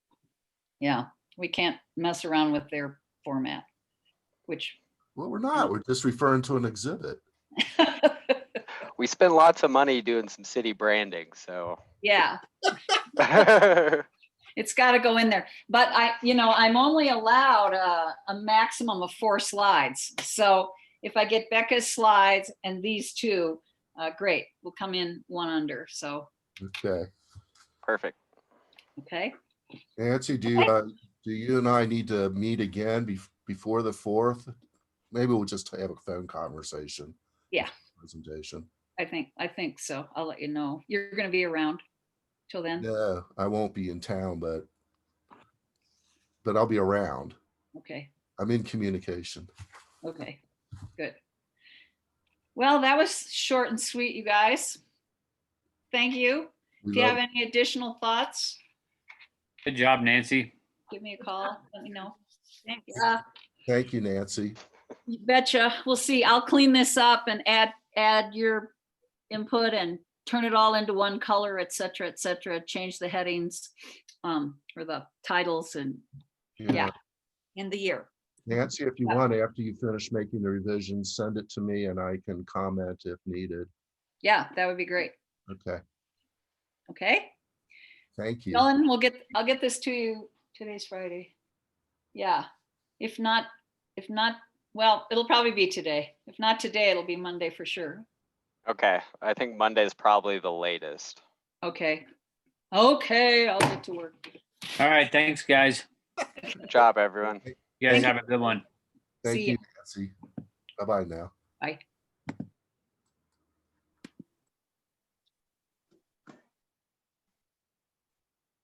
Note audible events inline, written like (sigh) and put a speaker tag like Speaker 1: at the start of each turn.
Speaker 1: Yeah, we can't mess around with their format, which, (laughs)
Speaker 2: Well, we're not. We're just referring to an exhibit.
Speaker 3: We spend lots of money doing some city branding, so. (laughs)
Speaker 1: yeah, it's got to go in there. But I, you know, I'm only allowed a, a maximum of four slides. So if I get Becca's slides and these two, uh, great, we'll come in one under. So,
Speaker 2: Okay.
Speaker 3: Perfect.
Speaker 1: okay.
Speaker 2: Nancy, do, you, uh, do you and I need to meet again bef- before the fourth? Maybe we'll just have a phone conversation.
Speaker 1: Yeah.
Speaker 2: Presentation.
Speaker 1: I think, I think so. I'll let you know. You're going to be around till then.
Speaker 2: No, I won't be in town, but but I'll be around.
Speaker 1: Okay.
Speaker 2: I'm in communication.
Speaker 1: Okay. Good. Well, that was short and sweet, you guys. Thank you.
Speaker 2: We
Speaker 1: If you have
Speaker 2: love-
Speaker 1: any additional thoughts,
Speaker 4: Good job, Nancy.
Speaker 1: give me a call. Let me know.
Speaker 5: Thank you.
Speaker 1: Uh,
Speaker 2: Thank you, Nancy.
Speaker 1: You betcha. We'll see. I'll clean this up and add, add your input and turn it all into one color, et cetera, et cetera. Change the headings um, or the titles and Yeah. in the year.
Speaker 2: uh, Nancy, if you
Speaker 1: Yeah.
Speaker 2: want, after you finish making the revisions, send it to me and I can comment if needed.
Speaker 1: Yeah, that would be great.
Speaker 2: Okay,
Speaker 1: Okay?
Speaker 2: thank you.
Speaker 1: Ellen, we'll get, I'll get this to you. Today's Friday. Yeah, if not, if not, well, it'll probably be today. If not today, it'll be Monday for sure.
Speaker 3: Okay, I think Monday's probably the latest.
Speaker 1: Okay. Okay, I'll get to work.
Speaker 4: All right, thanks, guys.
Speaker 3: Good job, everyone.
Speaker 4: You guys
Speaker 1: Thank
Speaker 4: have a good one.
Speaker 2: Thank
Speaker 1: See ya.
Speaker 2: you, Nancy. Bye-bye now.
Speaker 1: Bye.